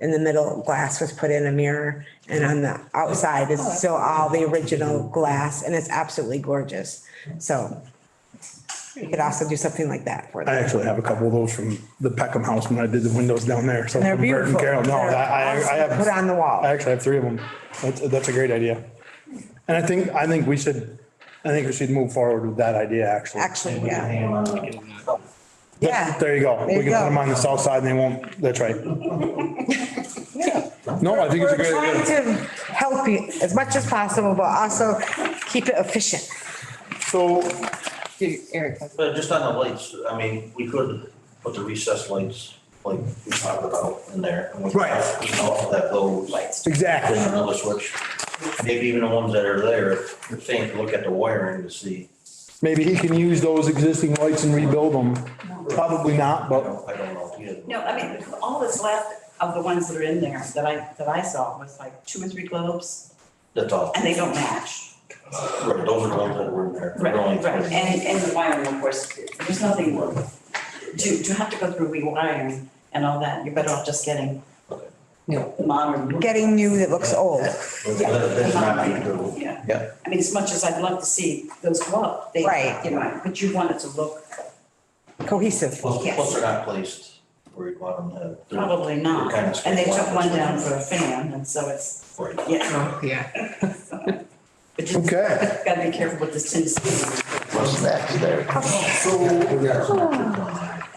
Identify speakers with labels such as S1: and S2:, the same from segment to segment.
S1: in the middle glass was put in a mirror and on the outside is still all the original glass and it's absolutely gorgeous. So you could also do something like that for
S2: I
S1: them.
S2: actually have a couple of those from the Peckham house when I did the windows down there. So
S3: They're
S2: from Bert and
S3: beautiful.
S2: Carol, no, I, I I have.
S1: Put on the wall.
S2: I actually have three of them. That's, that's a great idea. And I think, I think we should, I think we should move forward with that idea, actually.
S1: Actually, yeah,
S2: Th-
S1: yeah.
S2: There you go. We
S1: There
S2: can
S1: you
S2: put them
S1: go.
S2: on the south side and they won't, that's right. No, I think it's
S1: We're
S2: a great
S1: trying
S2: idea.
S1: to help you as much as possible, but also keep it efficient.
S2: So,
S3: Erica.
S4: But just on the lights, I mean, we could put the recessed lights, like we talked about in there. and we could,
S2: Right.
S4: You know, that go lights.
S2: exactly.
S4: Another switch, maybe even the ones that are there, the same, look at the wiring to see.
S2: Maybe he can use those existing lights and rebuild them. Probably not,
S4: I
S2: but
S4: don't, I don't know. if he has-
S5: No, I mean, all that's left of the ones that are in there that I, that I saw was like two or three globes
S4: That's all,
S5: and they don't match.
S4: right, those are the ones that were in there.
S5: Right,
S4: They're only
S5: right.
S4: three.
S5: And, and the wiring, of course, there's nothing worth. To, to have to go through rewiring and all that, you're better off just getting modern.
S1: Getting new that looks old.
S4: That- That's not being good.
S5: Yeah.
S4: Yeah.
S5: I mean, as much as I'd love to see those go up, they,
S1: Right.
S5: you know, but you want it to look,
S1: cohesive.
S4: Plus,
S5: Yes.
S4: plus they're not placed where you'd want them to. They're-
S5: probably not.
S4: they're kinda
S5: And they took
S4: square.
S5: one down for a fan and so it's,
S4: Right.
S5: yeah.
S3: Yeah.
S5: But just
S2: Okay.
S5: Gotta be careful with this Tennessee.
S4: What's next there? So.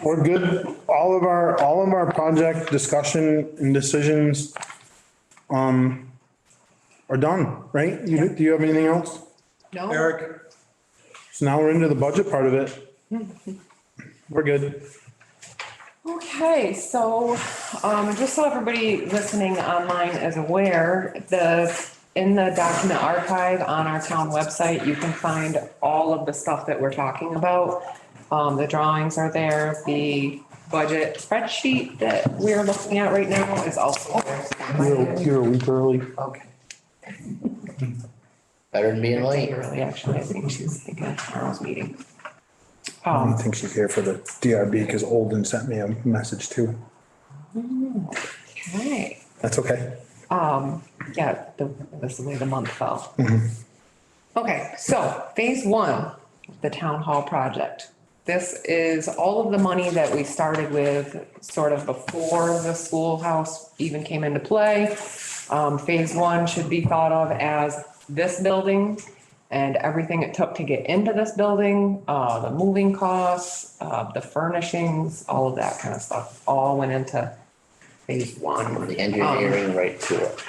S2: we're good. All of our, all of our project discussion and decisions um, are done, right? You, do you have anything else?
S3: No,
S2: Eric. So now we're into the budget part of it. We're good.
S3: okay, so, um, just so everybody listening online is aware, the, in the document archive on our town website, you can find all of the stuff that we're talking about. Um, the drawings are there, the budget spreadsheet that we're looking at right now is also
S2: You're,
S3: there.
S2: you're a week early.
S3: Okay.
S6: Better than being late.
S3: Really, actually, I think she's thinking of tomorrow's meeting.
S2: I don't
S3: Um,
S2: think she's here for the DRB because Olden sent me a message too.
S3: okay.
S2: That's okay.
S3: Um, yeah, the, that's the way the month fell. Okay, so phase one, the town hall project. This is all of the money that we started with sort of before the schoolhouse even came into play. Um, phase one should be thought of as this building and everything it took to get into this building, uh, the moving costs, uh, the furnishings, all of that kind of stuff, all went into phase one.
S6: The engineering right to it.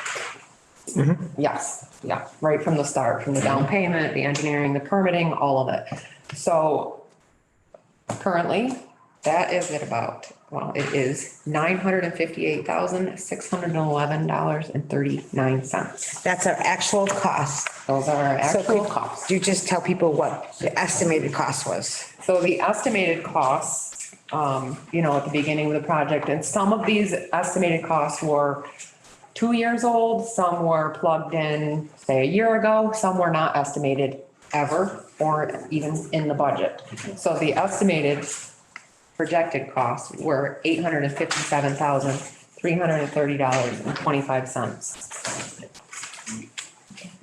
S3: Yes, yeah, right from the start, from the
S1: Mm-hmm.
S3: down payment, the engineering, the permitting, all of it. So currently, that is at about, well, it is nine hundred and fifty-eight thousand, six hundred and eleven dollars and thirty-nine cents.
S1: That's our actual cost.
S3: Those are our
S1: So
S3: actual
S1: could
S3: costs.
S1: You just tell people what the estimated cost was.
S3: So the estimated costs, um, you know, at the beginning of the project, and some of these estimated costs were two years old, some were plugged in, say, a year ago, some were not estimated ever or even in the budget. So the estimated projected costs were eight hundred and fifty-seven thousand, three hundred and thirty dollars and twenty-five cents.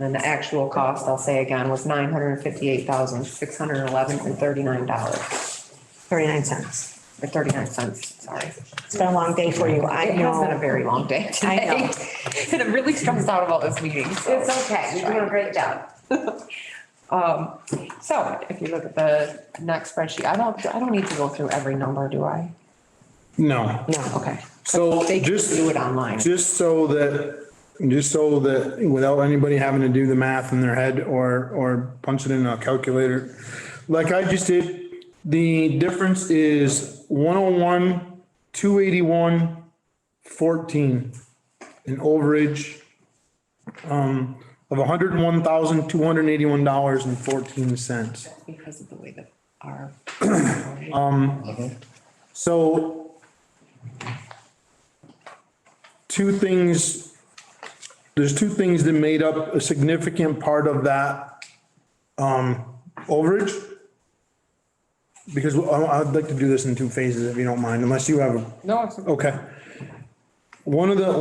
S3: And the actual cost, I'll say again, was nine hundred and fifty-eight thousand, six hundred and eleven and thirty-nine dollars,
S1: 39 cents.
S3: or thirty-nine cents, sorry.
S1: It's been a long day for you, I
S3: It has been a
S1: know.
S3: very long day
S1: I know.
S3: today. And I'm really stressed out about this meeting, so.
S1: okay, you're doing a great job.
S3: Um, so if you look at the next spreadsheet, I don't, I don't need to go through every number, do I?
S2: No.
S1: No,
S3: Okay.
S2: So
S3: They can
S2: just-
S3: do it online.
S2: Just so that, just so that without anybody having to do the math in their head or, or punch it in a calculator. Like I just did, the difference is one oh one, two eighty-one, fourteen. An overage, um, of hundred and one thousand, two hundred and eighty-one dollars and fourteen cents.
S3: Because of the way that our.
S2: So two things, there's two things that made up a significant part of that um, overage. Because uh, I- I'd like to do this in two phases, if you don't mind, unless you have, a
S3: No, it's
S2: okay. One of the,